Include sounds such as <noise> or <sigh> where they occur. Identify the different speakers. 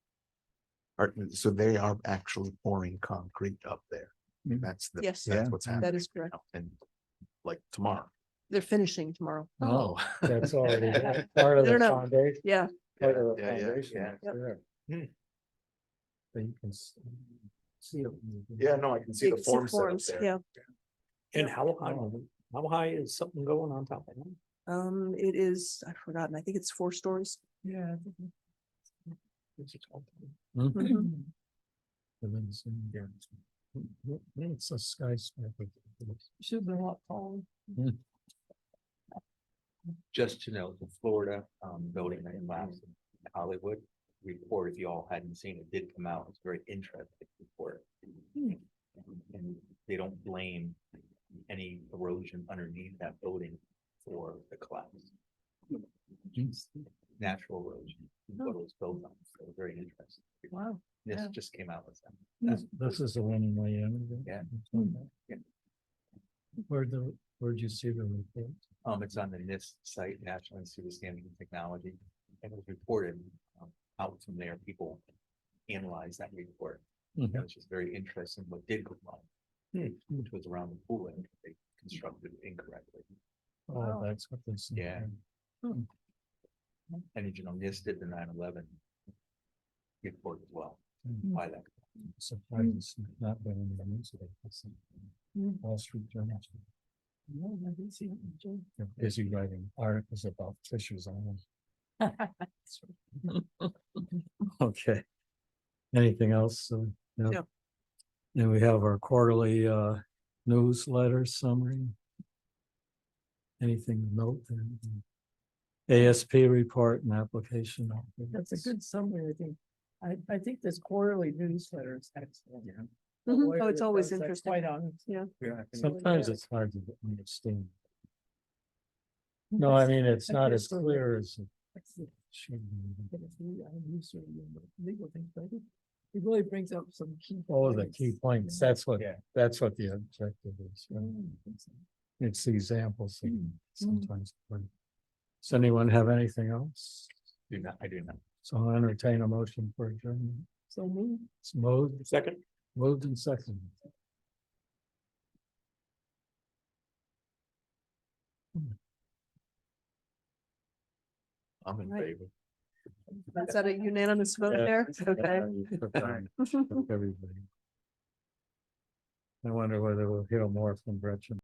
Speaker 1: Are, so they are actually pouring concrete up there.
Speaker 2: Mm.
Speaker 1: That's the,
Speaker 3: Yes.
Speaker 1: that's
Speaker 2: Yeah.
Speaker 1: what's
Speaker 2: That
Speaker 1: happening.
Speaker 3: is
Speaker 1: right
Speaker 3: correct.
Speaker 1: now, And like tomorrow.
Speaker 3: They're finishing tomorrow.
Speaker 1: Oh.
Speaker 2: That's
Speaker 1: already <laughs>
Speaker 2: part
Speaker 3: of the No, no.
Speaker 2: foundation.
Speaker 3: Yeah,
Speaker 1: part of the Yeah, yeah, yeah, foundation, yeah. Hmm.
Speaker 2: So you can s- see it.
Speaker 1: Yeah, no, I can see
Speaker 3: you
Speaker 1: the
Speaker 3: can see
Speaker 1: form set up
Speaker 3: forms,
Speaker 1: there.
Speaker 3: yeah.
Speaker 4: And how high,
Speaker 2: Oh,
Speaker 4: how high is something going on top of it?
Speaker 3: Um, it is, I've forgotten, I think it's four stories.
Speaker 4: Yeah.
Speaker 2: Hmm.
Speaker 3: Mhm.
Speaker 2: the links in there. It's a skyscraper.
Speaker 4: Should be a lot taller.
Speaker 5: just to know, the Florida um building that collapsed in Hollywood report, if you all hadn't seen it, did come out. It's a very interesting report. And they don't blame any erosion underneath that building for the collapse. Natural erosion, what it was built on, so very interesting.
Speaker 3: Wow.
Speaker 5: This
Speaker 3: yeah.
Speaker 5: just came out with that.
Speaker 2: This- This is the one in Miami. that-
Speaker 5: Yeah.
Speaker 2: that's on that.
Speaker 5: Yeah.
Speaker 2: Where the, where'd you see the report?
Speaker 5: Um, it's on the NIST site, National Institute of Standards and Technology, and it was reported um, out from there. People analyzed that report.
Speaker 1: Mm-hmm.
Speaker 2: Mhm.
Speaker 5: That was just very interesting what did go wrong. Which was around the pool and they constructed incorrectly.
Speaker 2: Oh, that's what this. is.
Speaker 5: Yeah. And you know, NIST did the 9/11 report as well.
Speaker 2: Mm.
Speaker 5: Why that?
Speaker 2: Surprised it's not been in the news today. It's
Speaker 6: Hmm.
Speaker 2: in Wall Street Journal. No, I didn't see it. They're busy writing articles about Fisher's Island. <laughs> Okay. Anything else? uh,
Speaker 3: No.
Speaker 2: Then we have our quarterly uh newsletter summary. Anything to note then? ASP report and application.
Speaker 6: That's a good summary, I think. I, I think this quarterly newsletter is excellent.
Speaker 5: Yeah.
Speaker 6: The
Speaker 3: Mhm.
Speaker 6: lawyer
Speaker 3: Oh, it's always
Speaker 6: does that
Speaker 3: interesting.
Speaker 6: Quite on,
Speaker 2: Sometimes it's hard to understand. No, I mean, it's
Speaker 6: I
Speaker 2: not
Speaker 6: feel
Speaker 2: as
Speaker 6: so-
Speaker 2: clear as it
Speaker 6: it's the-
Speaker 2: should be.
Speaker 6: it's the- I use sort of the legal things, but I think it really brings up some key.
Speaker 2: Oh, the
Speaker 6: points.
Speaker 2: key points, that's what, that's what the objective is. right?
Speaker 6: Mm, I think so.
Speaker 2: It's the examples that sometimes. work. Does anyone have anything else?
Speaker 5: Do not, I do not.
Speaker 2: So I'll entertain a motion for adjournment.
Speaker 6: So move.
Speaker 2: It's moved,
Speaker 4: Second.
Speaker 2: moved and seconded.
Speaker 5: I'm in
Speaker 3: Right.
Speaker 5: favor.
Speaker 3: Is that a unanimous vote
Speaker 2: Yeah.
Speaker 3: there? Okay.
Speaker 6: <laughs>
Speaker 3: <laughs>
Speaker 2: Everybody. I wonder whether we'll hear more from Gretchen.